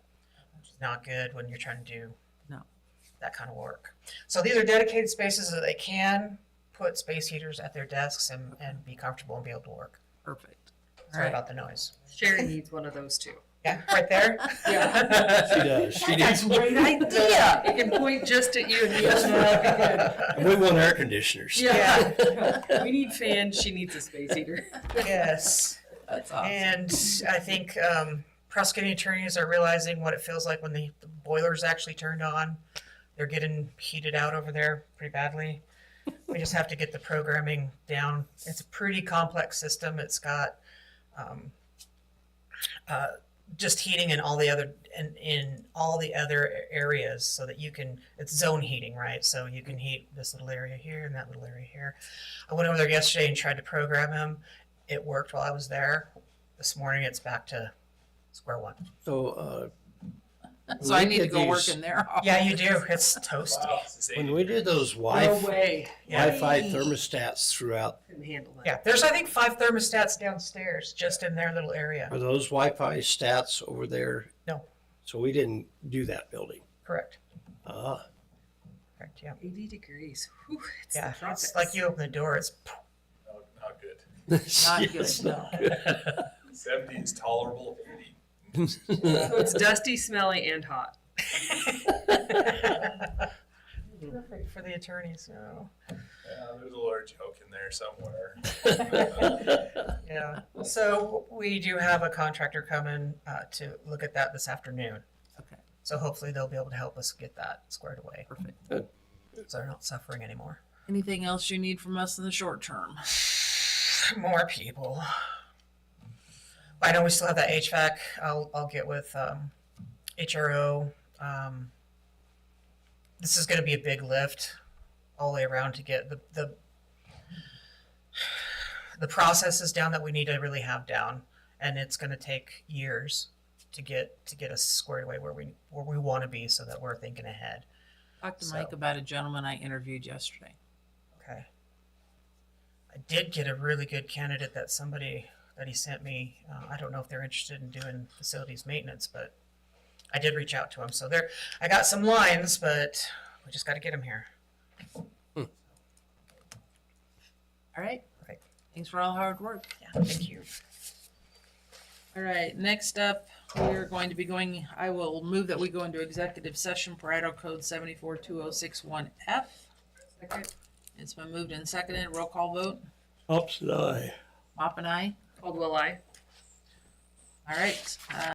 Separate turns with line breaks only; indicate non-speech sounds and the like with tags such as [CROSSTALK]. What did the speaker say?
not good when you're trying to do
No.
that kind of work. So these are dedicated spaces that they can put space heaters at their desks and, and be comfortable and be able to work. [LAUGHS]
Perfect. All
Sorry
right.
about the noise.
Sherry needs one of those too.
Yeah, right
[LAUGHS]
there. [LAUGHS]
She does. She
That's
needs.
a great idea. It can point just at you and you just know that'd be good.
And we want air conditioners.
Yeah. We need fans, she needs a
[LAUGHS]
space heater.
Yes.
That's awesome.
And I think um, prosecuting attorneys are realizing what it feels like when the the boiler's actually turned on. They're getting heated out over there pretty badly. We just have to get the programming down. It's a pretty complex system. It's got um, uh, just heating in all the other in, in all the other a- areas so that you can it's zone heating right so you can heat this little area here and that little area here i went over there yesterday and tried to program him it worked while i was there this morning it's back to square one
So, uh,
So I need to
Look at
go work
these.
in their [LAUGHS]
Oh.
office.
yeah you do it's toasty
when we did those
No
Wi-Fi,
way.
yeah
Wi-Fi thermostats throughout,
Couldn't handle that.
yeah there's i think five thermostats downstairs just in their little area
are those Wi-Fi stats over there?
No.
So we didn't do that building.
correct
Ah,
correct yeah
Eighty degrees. Whew, it's
yeah
the
it's
tropics.
like you open the door it's [LAUGHS]
No, not good.
Not
[LAUGHS] Yes,
good, no.
[LAUGHS]
Seventy is tolerable, eighty.
So it's dusty, smelly, and hot.
perfect for the attorneys so
Yeah, uh, there's a lawyer joke in there somewhere.
Yeah, so we do have a contractor coming uh, to look at that this afternoon.
Okay.
So hopefully they'll be able to help us get that squared away,
Perfect.
so they're not suffering anymore.
Anything else you need from us in the short term?
[SIGHS] More people. I know we still have that HVAC, I'll, I'll get with um, HRO. um, This is gonna be a big lift all the way around to get the, the the processes down that we need to really have down, and it's gonna take years to get, to get us squared away where we, where we wanna be so that we're thinking ahead.
Talked to
So-
Mike about a gentleman I interviewed yesterday.
Okay. I did get a really good candidate that somebody that he sent me. Uh, I don't know if they're interested in doing facilities maintenance, but I did reach out to him. So there, I got some lines, but we just got to get him here.
All right.
Right.
Thanks for all the hard work.
Yeah, thank you.
All right, next up, we're going to be going, I will move that we go into executive session per Idaho Code seventy-four two oh six one F.
Second,
It's been moved and seconded. Roll call vote.
Ups and I.
Mop and I.
Caldwell, I.
All right, uh,